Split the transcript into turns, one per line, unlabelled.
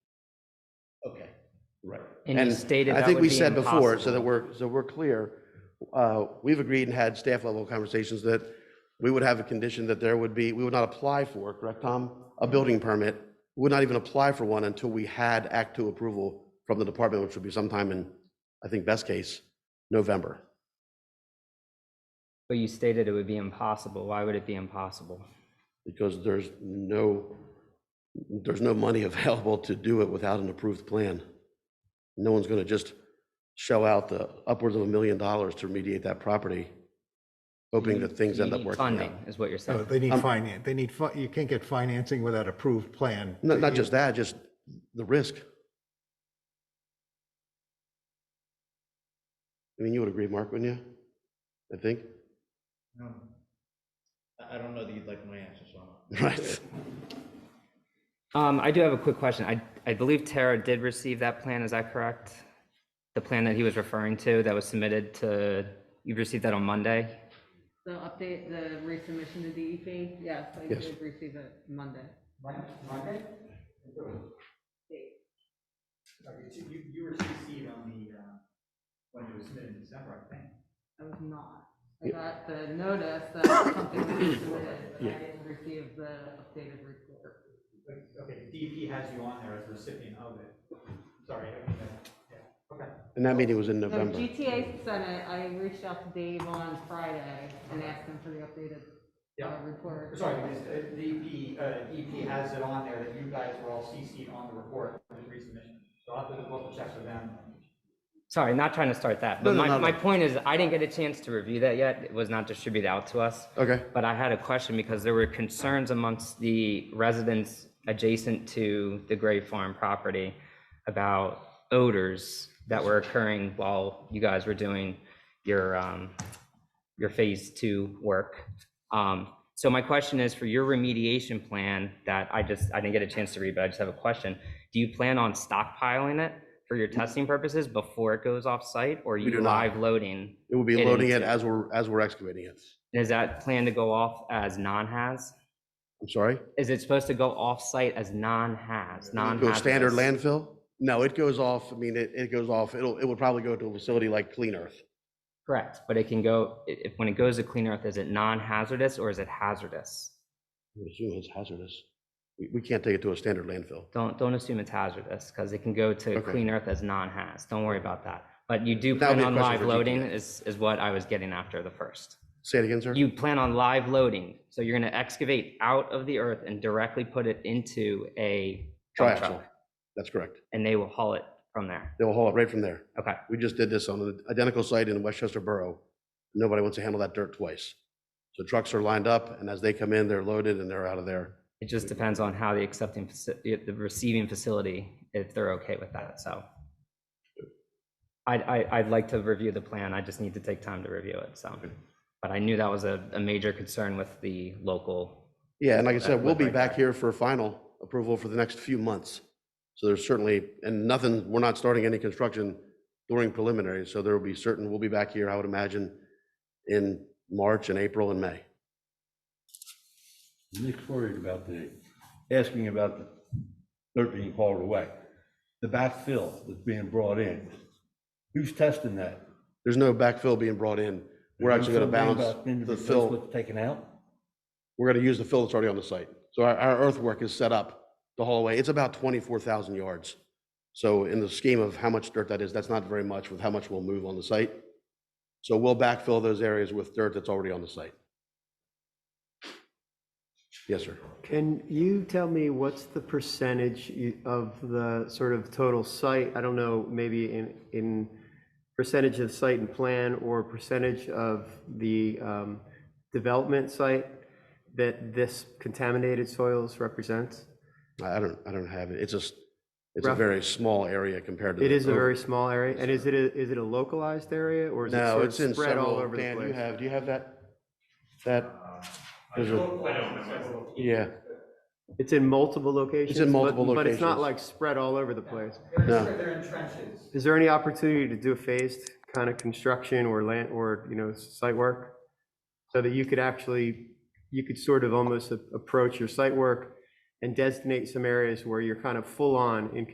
Right.
And you stated
I
that
think
would
we
be
said before, so
impossible.
that we're, so we're clear, uh, we've agreed and had staff level conversations that we would have a condition that there would be, we would not apply for, correct, Tom? A building permit, We would not even apply for one until we had Act Two approval from the department, which would be sometime in, I think, best case, November.
But you stated it would be impossible. Why would it be impossible?
because there's no, there's no money available to do it without an approved plan. No one's gonna just shell out the upwards of a million dollars to remediate that property, hoping that things
You
end up
need
working out.
Funding is what you're
Oh,
No,
saying.
Oh, they
Um,
need finance, they need, fi- you can't get financing without approved plan.
Not, not just that, just the risk. I mean, you would agree, Mark, wouldn't you? I think,
Um, I I don't know that you'd like my answer, so I'm.
right?
Um, I do have a quick question. I, I believe Tara did receive that plan. Is that correct? The plan that he was referring to that was submitted to, you received that on Monday?
The update, the resubmission to DEP, yes, I
Yes.
did receive it Monday.
Monday? Sorry, it's- You, you were CC'd on the, uh, when it was submitted in December, I think.
I was not. I got the notice that something was submitted, but I didn't receive the updated report.
But, Okay, DEP has you on there as a recipient of it. Sorry, I mean, uh, yeah, okay.
And that meeting was in
No,
November.
GTA sent it, I reached out to Dave on Friday and asked him for the updated uh,
Yeah.
report.
Sorry, because uh, DEP, uh, DEP has it on there that you guys were all CC'd on the report for the resubmission. So I'll have to double check with them.
Sorry, not trying to start that,
No,
but
no,
my,
no, no.
my point is I didn't get a chance to review that yet. It was not distributed out to us.
Okay,
But I had a question because there were concerns amongst the residents adjacent to the Gray Farm property about odors that were occurring while you guys were doing your, um, your phase two work. Um, so my question is for your remediation plan that I just, I didn't get a chance to read, but I just have a question. Do you plan on stockpiling it for your testing purposes before it goes off site or are
do
you
not.
live loading?
it will be
It
loading it
is.
as we're, as we're excavating it.
Is that planned to go off as non-haz?
I'm sorry?
Is it supposed to go off-site as non-haz, non
Go standard landfill? No, it goes off, I mean, it, it goes off, it'll, it would probably go to a facility like Clean Earth.
Correct, but it can go, i- if, when it goes to Clean Earth, is it non-hazardous or is it hazardous?
I would assume it's hazardous. We, we can't take it to a standard landfill.
Don't, don't assume it's hazardous, because it can go to
Okay.
Clean Earth as non-haz, don't worry about that. But you do
That would
plan
be a
on
question
live
for
loading
DPS.
is, is what I was getting after the first.
Say it again, sir?
You plan on live loading, so you're gonna excavate out of the earth and directly put it into a dump
Triaxle.
truck,
That's correct.
and they will haul it from there.
They will haul it right from there.
Okay,
We just did this on an identical site in Westchester Borough. Nobody wants to handle that dirt twice. So trucks are lined up and as they come in, they're loaded and they're out of there.
it just depends on how the accepting, faci- the the receiving facility, if they're okay with that, so. I'd, I- I'd like to review the plan, I just need to take time to review it, so. But I knew that was a, a major concern with the local,
Yeah, and like I said,
That
we'll
would
be
break
back
that.
here for final approval for the next few months. So there's certainly, and nothing, we're not starting any construction during preliminary, so there will be certain, we'll be back here, I would imagine, in March and April and May.
Nick's worried about the, asking about the dirt being hauled away, the backfill that's being brought in. Who's testing that?
There's no backfill being brought in. We're actually gonna
Something
balance
about then to
the
replace
fill,
What's taken out?
we're gonna use the fill that's already on the site. So our, our earthwork is set up to haul away. It's about twenty-four thousand yards. So in the scheme of how much dirt that is, that's not very much with how much we'll move on the site. So we'll backfill those areas with dirt that's already on the site. Yes, sir.
Can you tell me what's the percentage you- of the sort of total site? I don't know, maybe in, in percentage of site and plan or percentage of the um, development site that this contaminated soils represents?
I I don't, I don't have it. It's just, it's a
Roughly.
very small area compared to.
It
the
is a
over-
very small area, and is it, a- is it a localized area or is it
No,
sort
it's in
of spread all
several,
over the
Dan, you
place?
have, do you have that? That? there's a- Yeah,
It's in multiple locations? but-
multiple
But it's not
locations.
like spread all over the place?
No.
They're, they're in trenches.
Is there any opportunity to do a phased kind of construction or land, or, you know, site work? So that you could actually, you could sort of almost a- approach your site work and designate some areas where you're kind of full on in